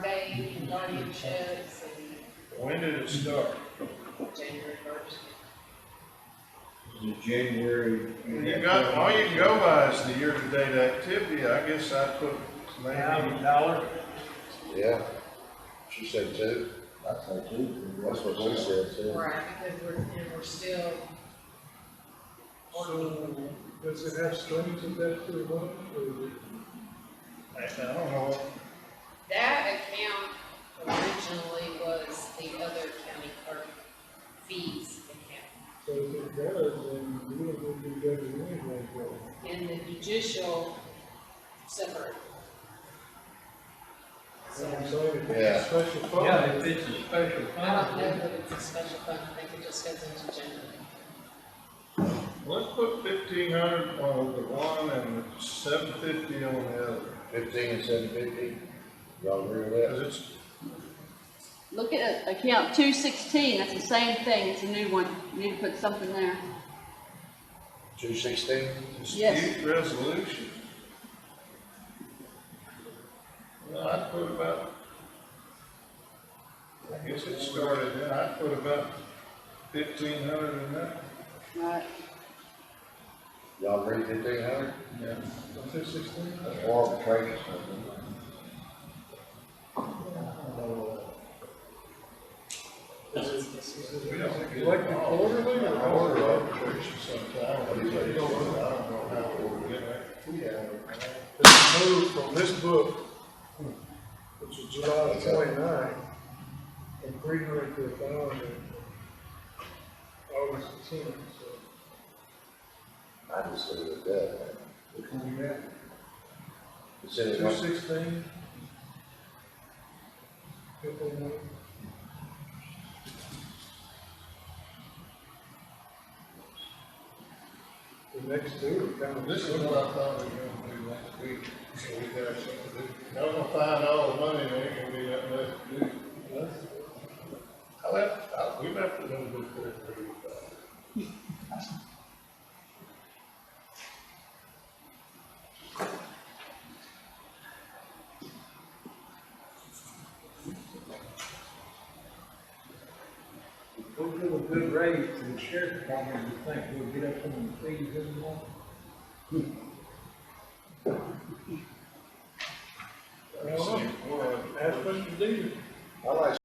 county sheds When did it start? and January first. The January. You got, all you can go by is the year-to-date activity, I guess I put maybe, dollar. Yeah, she said two, I'd say two. that's what she said, too. Right, because we're, and we're still So, does it have strings attached to it, or what? I don't know, That account originally was the other county clerk fees account. So if it does, then we don't need to get it anyway, but And the judicial separate. So I'm saying if Yeah. it's a special fund. Yeah, if it's a special I don't know fund, that it's a special fund, I think it just goes into general. let's put fifteen hundred on the one and seven fifty on the other, Fifteen and seven fifty, y'all agree with because that? it's, Look at uh, account two sixteen, that's the same thing, it's a new one, you need to put something there. Two sixteen? Yes. dispute resolution. Well, I put about, I guess it started then, I put about fifteen hundred in that. Right. Y'all agree fifteen hundred? Yeah. Two sixteen? Or trade or something? We don't get. Like the quarterly or? Order arbitration sometime, I don't know how we'll get it. It's moved from this book, which is July twenty-nine, from three hundred to a thousand, August tenth, so. I just leave it at that, man. Which one you got? It says, Two one- sixteen? Fifteen, the next two are kind of. This is what I thought we were gonna do last week, so we got something, to do. I'm gonna find all the money, there ain't gonna be nothing left to do. I left, I, we left a little bit for everybody. if we give a good raise to the sheriff department, you think we'll get up on the fees anymore? That's what you do. I like